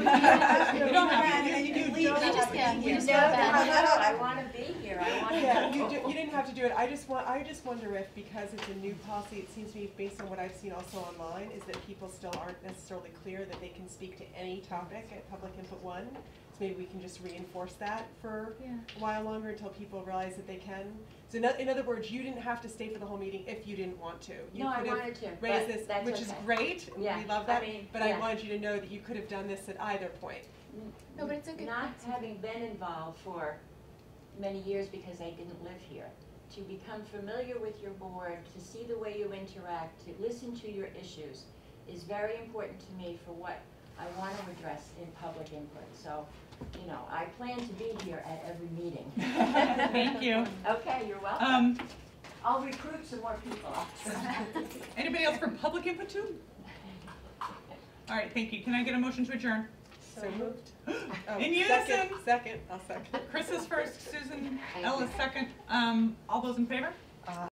just No, no, got back. no, I wanna be here, I wanna. Yeah, you, do- you didn't have to do it, I just want, I just wonder if, because it's a new policy, it seems to me, based on what I've seen also online, is that people still aren't necessarily clear that they can speak to any topic at public input one. So maybe we can just reinforce that for Yeah. a while longer until people realize that they can. So in, oth- in other words, you didn't have to stay for the whole meeting if you didn't want to. You No, I could have wanted to, but raised this, that's which is okay. great, we Yeah, I love that, mean, but I yeah. wanted you to know that you could have done this at either point. No, but it's a good. Not having been involved for many years because I didn't live here, to become familiar with your board, to see the way you interact, to listen to your issues is very important to me for what I want to address in public input. So, you know, I plan to be here at every meeting. Thank you. Okay, you're Uh, welcome. Um, I'll recruit some more people. anybody else from public input too? All right, thank you. Can I get a motion to adjourn? So moved. Oh, second, In unison. Second, I'll second. Chris is first, Susan I Ellis second. Um, all those in favor?